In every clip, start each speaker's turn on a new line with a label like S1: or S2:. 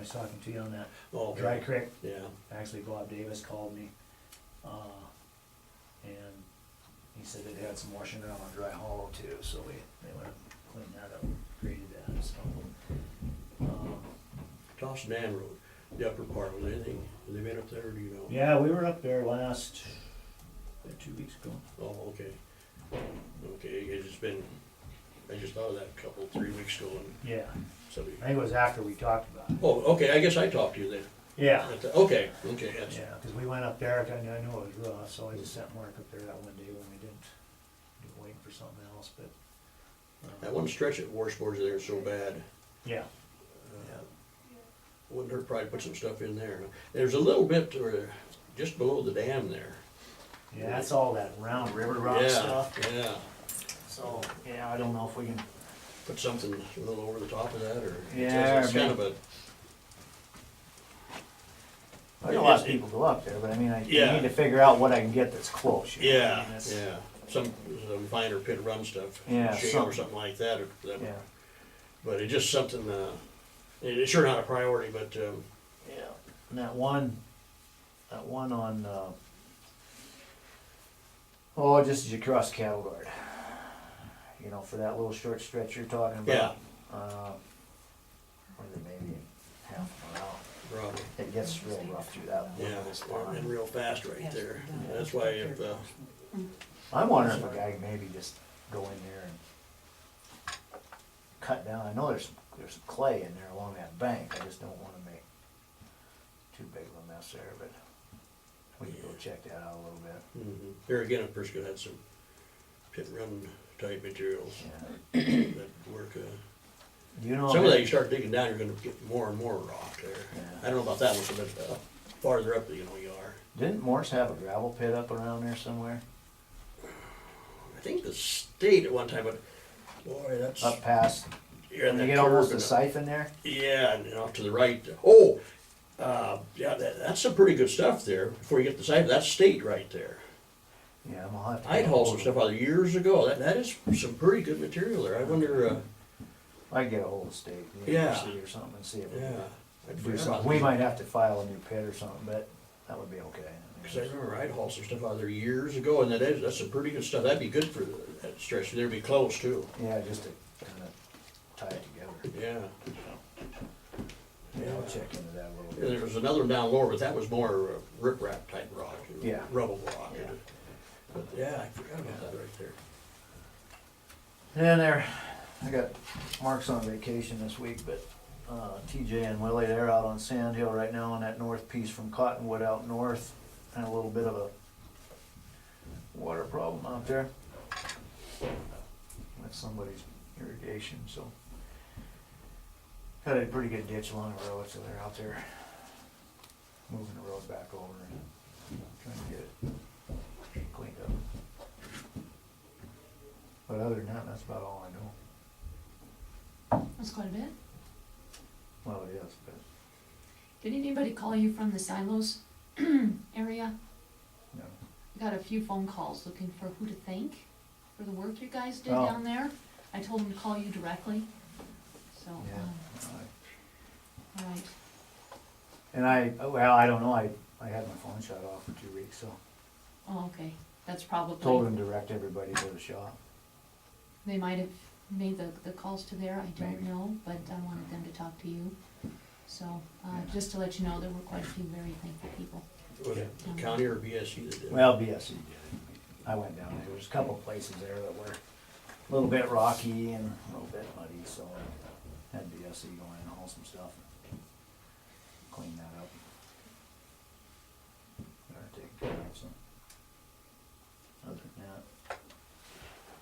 S1: was talking to you on that.
S2: Oh,
S1: Dry Creek,
S2: Yeah,
S1: actually Bob Davis called me, uh, and he said it had some washing down on Dry Hollow too, so we, they went and cleaned that up, graded that, so. um,
S2: Toss Dam Road, the upper part, was anything, have they been up there, or do you know?
S1: Yeah, we were up there last, uh, two weeks ago.
S2: Oh, okay. Okay, it's just been, I just thought of that a couple, three weeks ago, and
S1: Yeah,
S2: somebody,
S1: I think it was after we talked about it.
S2: oh, okay, I guess I talked to you then.
S1: Yeah,
S2: That's- Okay, okay, that's,
S1: yeah, because we went up there, I knew, I knew it was rough, so I just sent Mark up there that one day when we didn't, we were waiting for something else, but. um,
S2: that one stretch at Warsboard's there is so bad.
S1: Yeah,
S2: Uh, Wouldn't hurt probably put some stuff in there. There's a little bit, or just below the dam there.
S1: yeah, that's all that round river rock
S2: Yeah,
S1: stuff,
S2: Yeah,
S1: so, yeah, I don't know if we can,
S2: put something a little over the top of that, or. it's-
S1: Yeah,
S2: It's kind of a,
S1: I know a lot of people go up there, but I mean, I you
S2: Yeah.
S1: need to figure out what I can get that's close. you know, I mean,
S2: yeah,
S1: that's-
S2: yeah, some, some finer pit run stuff.
S1: Yeah,
S2: Shale
S1: something.
S2: or something like that, or that-
S1: Yeah,
S2: but it's just something, uh, it- it's sure not a priority, but, um,
S1: yeah, and that one, that one on, uh, oh, just as you cross cattle guard. You know, for that little short stretch you're talking about.
S2: yeah,
S1: Uh, what is it, maybe half an hour.
S2: probably.
S1: It gets real rough through that
S2: Yeah,
S1: little
S2: it's running
S1: spot.
S2: real fast right there. That's why if, uh,
S1: I'm wondering if a guy can maybe just go in there and cut down, I know there's, there's some clay in there along that bank, I just don't wanna make too big of a mess there, but we can go check that out a little bit,
S2: mhm. here again, a person could have some pit run type materials
S1: yeah.
S2: that work, uh,
S1: Do you know?
S2: Some of
S1: if-
S2: that, you start digging down, you're gonna get more and more rock there. I don't know about that one, but uh, farther up, you know, you are.
S1: Didn't Morse have a gravel pit up around there somewhere,
S2: I think the state at one time, but boy, that's.
S1: up past,
S2: you're in
S1: when you
S2: that
S1: get almost
S2: curve
S1: to
S2: and-
S1: siphon there?
S2: Yeah, and off to the right, oh, uh, yeah, that, that's some pretty good stuff there, before you get to siphon, that's state right there.
S1: Yeah, I'm gonna have to.
S2: I'd hauled some stuff out there years ago, that, that is some pretty good material there, I wonder, uh,
S1: I can get a hold of state
S2: Yeah.
S1: university or something and see if we
S2: yeah.
S1: can
S2: I'd
S1: do
S2: forgot about
S1: something. We
S2: that.
S1: might have to file a new pit or something, but that would be okay. I mean,
S2: Cause I remember I'd hauled some stuff out there years ago, and that is, that's some pretty good stuff, that'd be good for that stretch, there'd be close too.
S1: Yeah, just to kind of tie it together.
S2: Yeah,
S1: Yeah, I'll check into that a little
S2: Yeah,
S1: bit.
S2: there was another one down lower, but that was more uh, riprap type rock, you know,
S1: Yeah.
S2: rubble rock. you know.
S1: Yeah.
S2: But yeah, I forgot about that right there.
S1: And there, I got Mark's on vacation this week, but uh, TJ and Willie, they're out on Sand Hill right now on that north piece from Cottonwood out north. And a little bit of a water problem out there. That's somebody's irrigation, so. Got a pretty good ditch along the road, so they're out there moving the road back over and trying to get it cleaned up. But other than that, that's about all I know.
S3: That's quite a bit.
S1: Well, it is, but
S3: Did anybody call you from the silos area?
S1: no.
S3: I Got a few phone calls looking for who to thank for the work you guys did
S1: Oh.
S3: down there. I told them to call you directly, so, um,
S1: Yeah. I-
S3: all right.
S1: And I, oh, well, I don't know, I, I had my phone shut off for two weeks, so
S3: Oh, okay, that's probably.
S1: told him to direct everybody to the shop.
S3: They might have made the, the calls to there, I don't
S1: Maybe.
S3: know, but I wanted them to talk to you. So, uh,
S1: Yeah.
S3: just to let you know, there were quite a few very thankful people.
S2: Was it the county or BSC that did it?
S1: Well, BSC did it. I went down there, there's a couple places there that were a little bit rocky and a little bit muddy, so I had BSC go in and haul some stuff. Clean that up. Better take care of some. Other than that.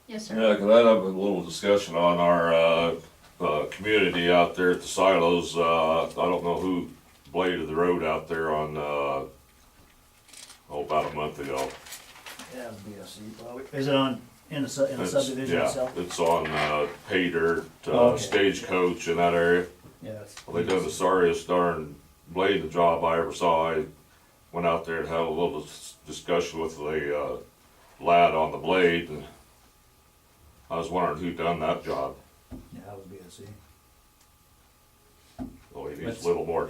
S3: Yes,
S4: Yeah,
S3: sir.
S4: could I have a little discussion on our, uh, uh, community out there at the silos, uh, I don't know who bladed the road out there on, uh, oh, about a month ago.
S1: Yeah, BSC probably. Is it on, in the, su- in the
S4: It's-
S1: subdivision
S4: yeah,
S1: itself?
S4: It's on, uh, pay dirt,
S1: Oh,
S4: uh,
S1: okay.
S4: stagecoach in that area,
S1: Yeah. it's-
S4: well, they done the sorriest darn blading job I ever saw, I went out there and had a little dis- discussion with the, uh, lad on the blade, and I was wondering who done that job.
S1: Yeah, that would be a C.
S4: Well, Oh, he needs
S5: Let's-
S4: a little more